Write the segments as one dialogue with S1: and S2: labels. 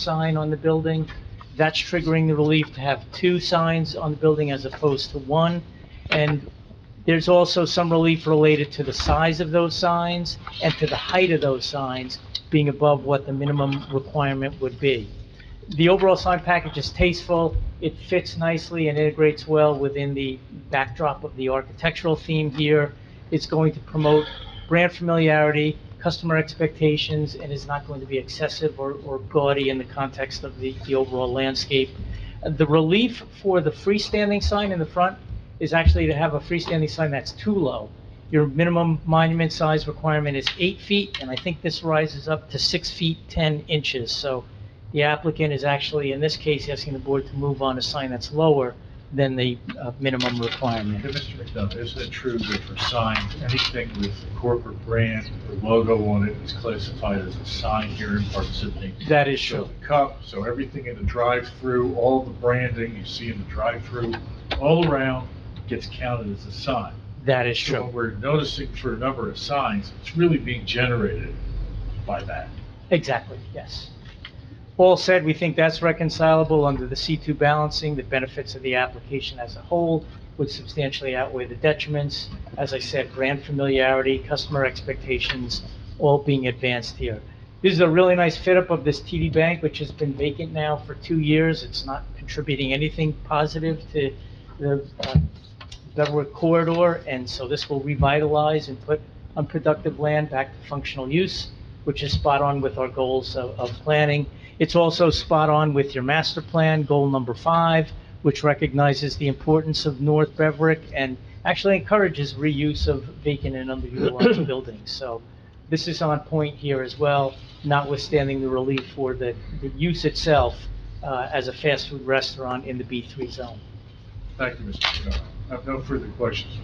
S1: sign on the building. That's triggering the relief to have two signs on the building as opposed to one. And there's also some relief related to the size of those signs and to the height of those signs being above what the minimum requirement would be. The overall sign package is tasteful, it fits nicely and integrates well within the backdrop of the architectural theme here. It's going to promote brand familiarity, customer expectations, and is not going to be excessive or, or gaudy in the context of the, the overall landscape. The relief for the freestanding sign in the front is actually to have a freestanding sign that's too low. Your minimum monument size requirement is eight feet, and I think this rises up to six feet, 10 inches. So the applicant is actually, in this case, asking the board to move on a sign that's lower than the uh, minimum requirement.
S2: Hey, Mr. McDonough, isn't it true that for signs, anything with a corporate brand or logo on it is classified as a sign here in Park City?
S1: That is
S2: So
S1: true.
S2: the cup, so everything in the drive-through, all the branding you see in the drive-through, all around gets counted as a sign.
S1: That is
S2: So what
S1: true.
S2: we're noticing for a number of signs, it's really being generated by that.
S1: Exactly, yes. All said, we think that's reconcilable under the C2 balancing. The benefits of the application as a whole would substantially outweigh the detriments. As I said, brand familiarity, customer expectations, all being advanced here. This is a really nice fit-up of this TD Bank, which has been vacant now for two years. It's not contributing anything positive to the uh, Beverwood corridor, and so this will revitalize and put unproductive land back to functional use, which is spot on with our goals of, of planning. It's also spot on with your master plan, goal number five, which recognizes the importance of North Beverick and actually encourages reuse of vacant and underutilized buildings. So this is on point here as well, notwithstanding the relief for the, the use itself, uh, as a fast food restaurant in the B3 zone.
S2: Thank you, Mr. McDonough. I have no further questions.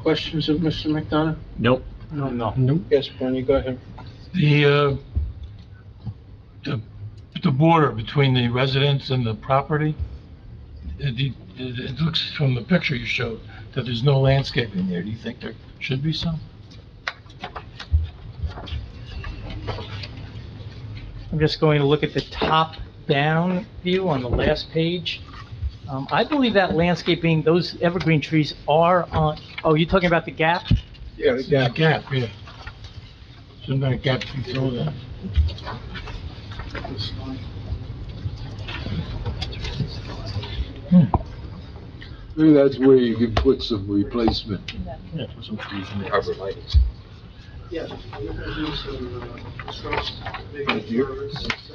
S3: Questions of Mr. McDonough?
S4: Nope.
S1: No, no.
S3: Yes, Bernie, go ahead.
S5: The, uh, the, the border between the residence and the property, it, it- it looks from the picture you showed that there's no landscaping there. Do you think there should be some?
S1: I'm just going to look at the top-down view on the last page. Um, I believe that landscaping, those evergreen trees are on, oh, you're talking about the gap?
S3: Yeah,
S5: The gap, yeah. Some kind of gap you throw there.
S6: Maybe that's where you can put some replacement.
S5: Yeah, put some trees in there.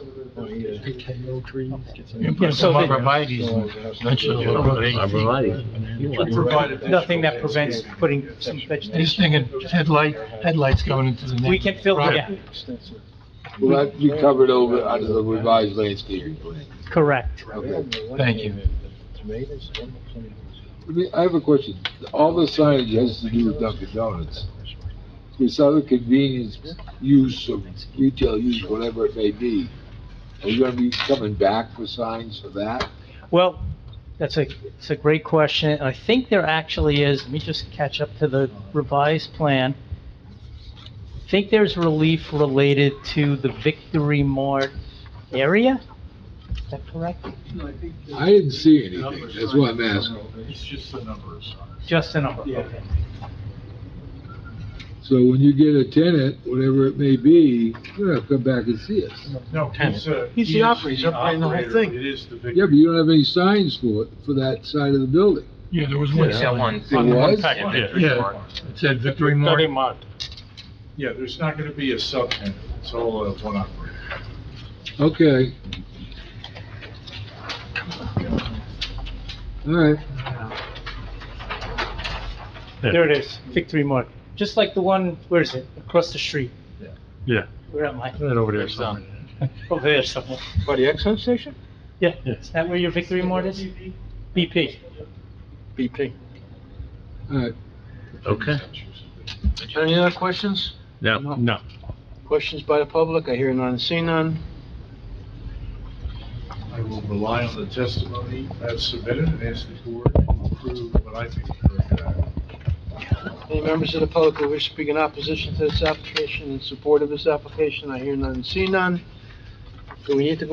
S3: TKO trees.
S5: You can
S1: Yeah,
S5: put
S1: so
S5: some
S1: they-
S5: arborvitae's in there, eventually. it'll grow.
S4: Arborvitae.
S2: Provided that-
S1: Nothing that prevents putting some
S5: He's
S1: vegetation.
S5: thinking headlight, headlights going into the next.
S1: We can fill the gap,
S6: Well, that you covered over under the revised landscaping plan.
S1: correct.
S6: Okay.
S5: Thank you.
S3: Tomatoes.
S6: I mean, I have a question. All the signage has to do with Dunkin' Donuts. This other convenience use of retail use, whatever it may be, are you gonna be coming back for signs for that?
S1: Well, that's a, it's a great question. I think there actually is, let me just catch up to the revised plan. I think there's relief related to the Victory Mart area? Is that correct?
S6: I didn't see anything. That's why I'm asking.
S2: It's just the number of signs.
S1: Just a number, okay.
S6: So when you get a tenant, whatever it may be, you're gonna come back and see us.
S2: No, he's a.
S3: He's the
S2: he is
S3: operator, he's operating the whole
S2: operator,
S3: thing.
S2: It is the victim.
S6: Yeah, but you don't have any signs for it, for that side of the building.
S5: Yeah, there was one.
S4: Yeah, one.
S6: There was?
S5: Yeah, it said Victory Mart.
S2: Yeah, there's not gonna be a subtenant, it's all uh, one operator.
S6: Okay. All right.
S1: There it is, Victory Mark. Just like the one, where is it? Across the street.
S4: Yeah.
S1: Where am I?
S4: Right over there somewhere.
S1: Over there somewhere.
S3: By the Exxon station?
S1: Yeah, is that where your Victory Mart is? BP.
S3: BP.
S6: All right.
S4: Okay.
S3: Any other questions?
S4: No, no.
S3: Questions by the public? I hear none, see none.
S2: I will rely on the testimony as submitted and ask the board to approve what I think is a very good act.
S3: Any members of the public who wish to speak in opposition to this application in support of this application? I hear none, see none.
S5: Do we need to